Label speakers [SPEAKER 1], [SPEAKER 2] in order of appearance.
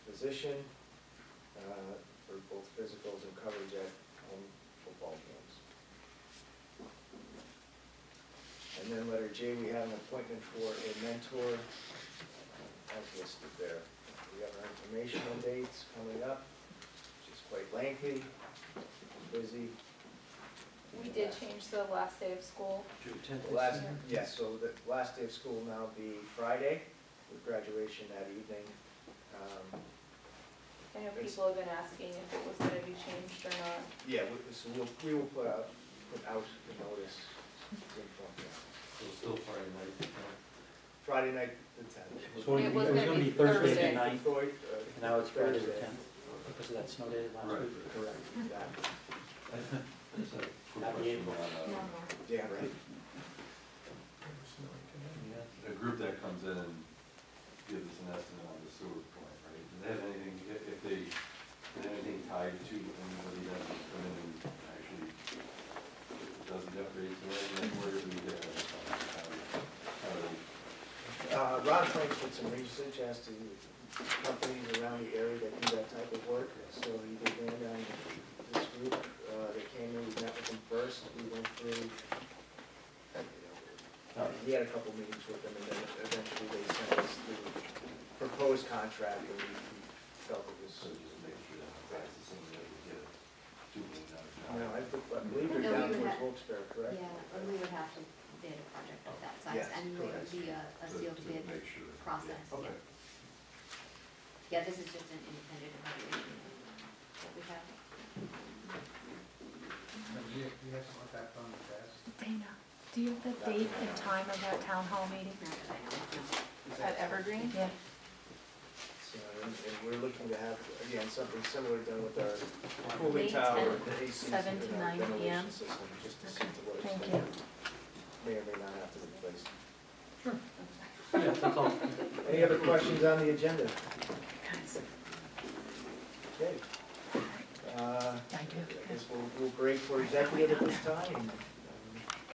[SPEAKER 1] condition uh, for both physicals and coverage at home football games. And then letter J, we have an appointment for a mentor, uh, as listed there. We have our informational dates coming up, which is quite lengthy, busy.
[SPEAKER 2] We did change the last day of school.
[SPEAKER 3] June tenth
[SPEAKER 1] The last,
[SPEAKER 3] this year?
[SPEAKER 1] yeah, so the last day of school now be Friday, with graduation that evening. Um,
[SPEAKER 2] I know people have been asking if it was gonna be changed or not.
[SPEAKER 1] Yeah, we- so we'll, we will put out, put out the notice. to inform you.
[SPEAKER 3] So it's still Friday night. uh,
[SPEAKER 1] Friday night, the tenth. uh,
[SPEAKER 4] So
[SPEAKER 2] It was gonna be Thursday.
[SPEAKER 4] the ninth, and now it's Friday the tenth, because of that snow day last
[SPEAKER 3] Right.
[SPEAKER 4] week.
[SPEAKER 1] Correct, exactly.
[SPEAKER 3] that's a good
[SPEAKER 4] Happy
[SPEAKER 3] question.
[SPEAKER 4] April.
[SPEAKER 3] Uh,
[SPEAKER 1] Yeah, right.
[SPEAKER 3] The group that comes in and gives us an estimate on the sewer plant, right? Do they have anything, if, if they, is anything tied to anybody that has come in and actually does the upgrades or anything, where do we get that? from? How do- how
[SPEAKER 1] Uh,
[SPEAKER 3] do we-
[SPEAKER 1] Ron Frank did some research as to companies around the area that do that type of work, so he began on this group, uh, that came in, we met with them first, we went through, uh, he had a couple meetings with them, and then eventually they sent us the proposed contract, and we we felt it
[SPEAKER 3] So
[SPEAKER 1] was,
[SPEAKER 3] just make sure that that's the same way we get it. Do we not?
[SPEAKER 1] you know, I think- I believe they're
[SPEAKER 5] No,
[SPEAKER 1] down
[SPEAKER 5] we
[SPEAKER 1] towards
[SPEAKER 5] had-
[SPEAKER 1] Wilkes-Barre, correct?
[SPEAKER 5] Yeah, and we would have to bid a project of that size,
[SPEAKER 1] Yes,
[SPEAKER 5] and it
[SPEAKER 1] correct.
[SPEAKER 5] would be a, a
[SPEAKER 3] To-
[SPEAKER 5] sealed
[SPEAKER 3] to
[SPEAKER 5] bid.
[SPEAKER 3] make sure. Yeah,
[SPEAKER 5] process, yeah.
[SPEAKER 3] Okay.
[SPEAKER 5] Yeah, this is just an independent evaluation that we have.
[SPEAKER 6] You, you have to put that on the desk.
[SPEAKER 7] Dana, do you have the date and time of that town hall meeting?
[SPEAKER 5] Not that I know of, no.
[SPEAKER 2] At Evergreen?
[SPEAKER 7] Yeah.
[SPEAKER 1] So, and and we're looking to have, again, something similar done with our
[SPEAKER 7] May
[SPEAKER 1] cooling tower,
[SPEAKER 7] tenth,
[SPEAKER 1] the AC system,
[SPEAKER 7] seven to
[SPEAKER 1] and our
[SPEAKER 7] 9 PM.
[SPEAKER 1] ventilation system, just to see to what
[SPEAKER 7] Thank
[SPEAKER 1] extent it may or may not have to replace.
[SPEAKER 4] Yeah, that's all.
[SPEAKER 1] Any other questions on the agenda?
[SPEAKER 7] Guys,
[SPEAKER 1] Okay. Uh,
[SPEAKER 7] I do.
[SPEAKER 1] I guess we'll, we'll break for executive at this time, and